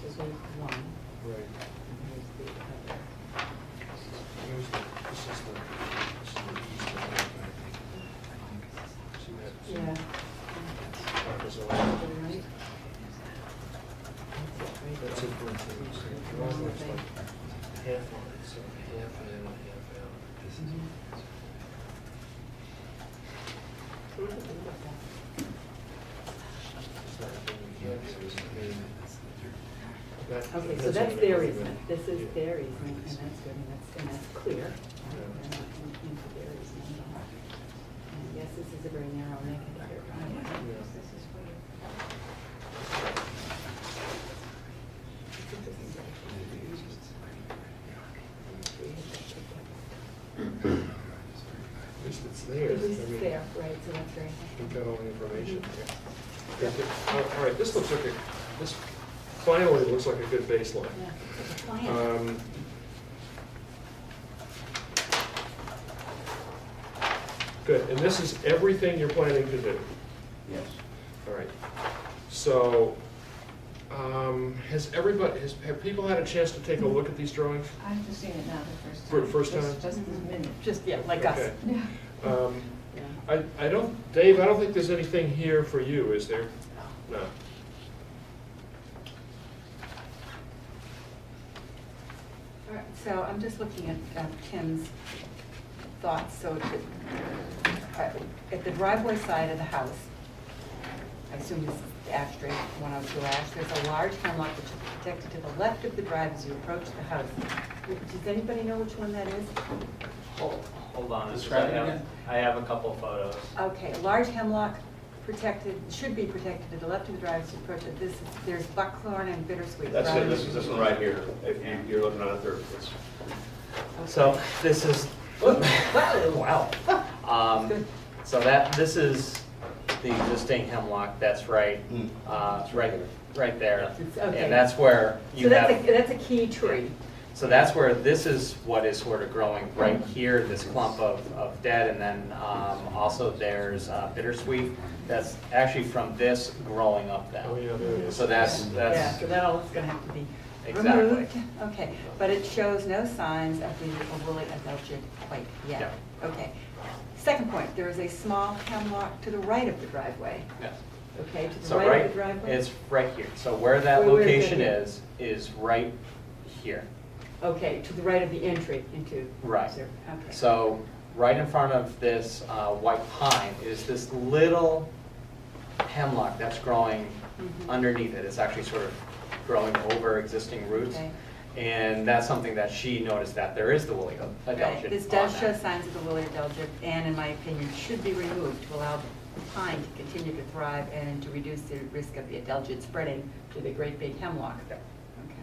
Here's one, Right. and here's the other. Here's the, this is the, this is the east of the- See that? Yeah. That was That's the all- right. That's That's it. it right there. It's for the- so the wrong other one's thing. like Half on it, so half in, half out. This is- Mhm. it's not doing it yet, so it's in. That- Okay, so on that's the their other easement, end. this is Yeah. their easement, and that's good, and that's, and that's clear. right? They're not in- into their easement at all. And yes, this is a very narrow neck of their driveway. Yeah. At least it's there. It I is mean, there, right, so that's very helpful. We've got all the information there. Okay, all- All right, this looks like a, this finally looks like a good baseline. Yeah, it's a plan. Um, Good, and this is everything you're planning to do? Yes. All right. So, um, has everybody, has, have people had a chance to take a look at these drawings? I've just seen it now the first time. For the first Just- time? Just this minute. Just, yeah, like us. Okay. Yeah. Um, Yeah. I, I don't, Dave, I don't think there's anything here for you, is there? No. All right, So I'm just looking at um, Tim's thoughts, so it- uh, at the driveway side of the house, I assume this is Ash Street, 102 Ash, there's a large hemlock which is protected to the left of the drive as you approach the house. Does anybody know which one that is? Hold hold on, because I Describe it have, again. I have a couple photos. Okay, a large hemlock protected, should be protected to the left of the drive as you approach it. This, is- there's buckthorn and bittersweet. That's it, right? this is this one right here, if you, you're looking at it there, it's, Okay. So this is, wow. Um, So that, this is the existing hemlock, that's right, Mm. uh, It's right right, here. right there. Hmm. It's- okay. And that's where So you that's a, have, that's a key tree. so that's where, this is what is sort of growing right here, this clump of, of dead. And then um, also there's uh, bittersweet, that's actually from this growing up Oh, now. yeah, there it is. So that's, Yeah, that's, so that all is gonna have to be Exactly. removed. Okay, but it shows no signs of the overly adulterated quite yet. Okay. Second point, there is a small hemlock to the right of the driveway, yeah. okay, to the So right right, of the driveway? it's right here. So where that Where- where is location it? is, is right here. Okay, to the right of the entry into. Right. Okay. So right in front of this uh, white pine is this little hemlock that's growing Mhm. underneath it. It's actually sort of growing over existing roots. Okay. And that's something that she noticed, that there is the woolly adulsion Right, This on does show that. signs of the woolly adulterated and, in my opinion, should be removed to allow the pine to continue to thrive and to reduce the risk of the adulterated spreading to the great big hemlock. Yeah. Okay.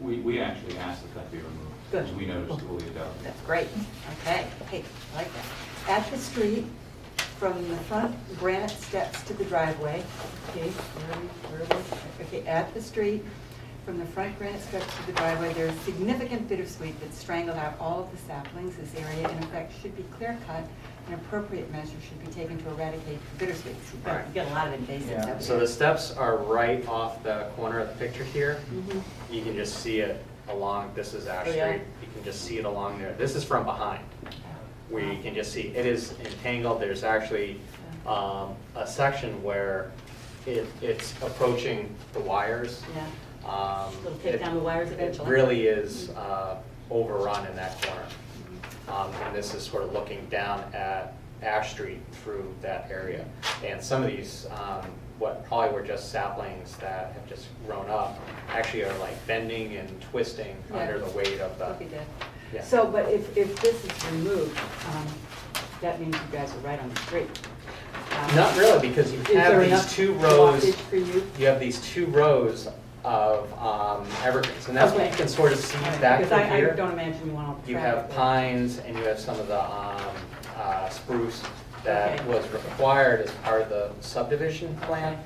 We, we actually asked that that be removed. Good. because We noticed Julia Dowd. That's great, okay, hey, I like that. At the street, from the front granite steps to the driveway, okay, where are we, where was, okay, at the street, from the front granite steps to the driveway, there is significant bittersweet that strangled out all of the saplings. This area, in effect, should be clear cut, and appropriate measures should be taken to eradicate the bittersweet. You get a lot of invasive Yeah. stuff. So the steps are right off the corner of the picture here. Mhm. You can just see it along, this is Ash Oh, yeah. Oh, Street. You can just see it along there. This is from behind. where you can just see, it is entangled, there's actually um, a section where it, it's approaching the wires. Yeah, Um, It'll take it- down the wires eventually. Mm-hmm. It really is uh, overrun in that corner. Um, And this is sort of looking down at Ash Street through that area. And some of these, um, what probably were just saplings that have just grown up, actually are like bending and twisting Yeah. under the weight of That'd be the, good. Yeah. So, but if, if this is removed, um, that means you guys are right on the street. Um, Not really, because you is have there these enough two rows. blockage for you? You have these two rows of um, evergreens, and that's what you Okay. can sort of see All right, back because from I- I here. don't imagine you want all the You have traffic. pines and you have some of the um, uh, spruce that Okay. was required as part of the subdivision plan.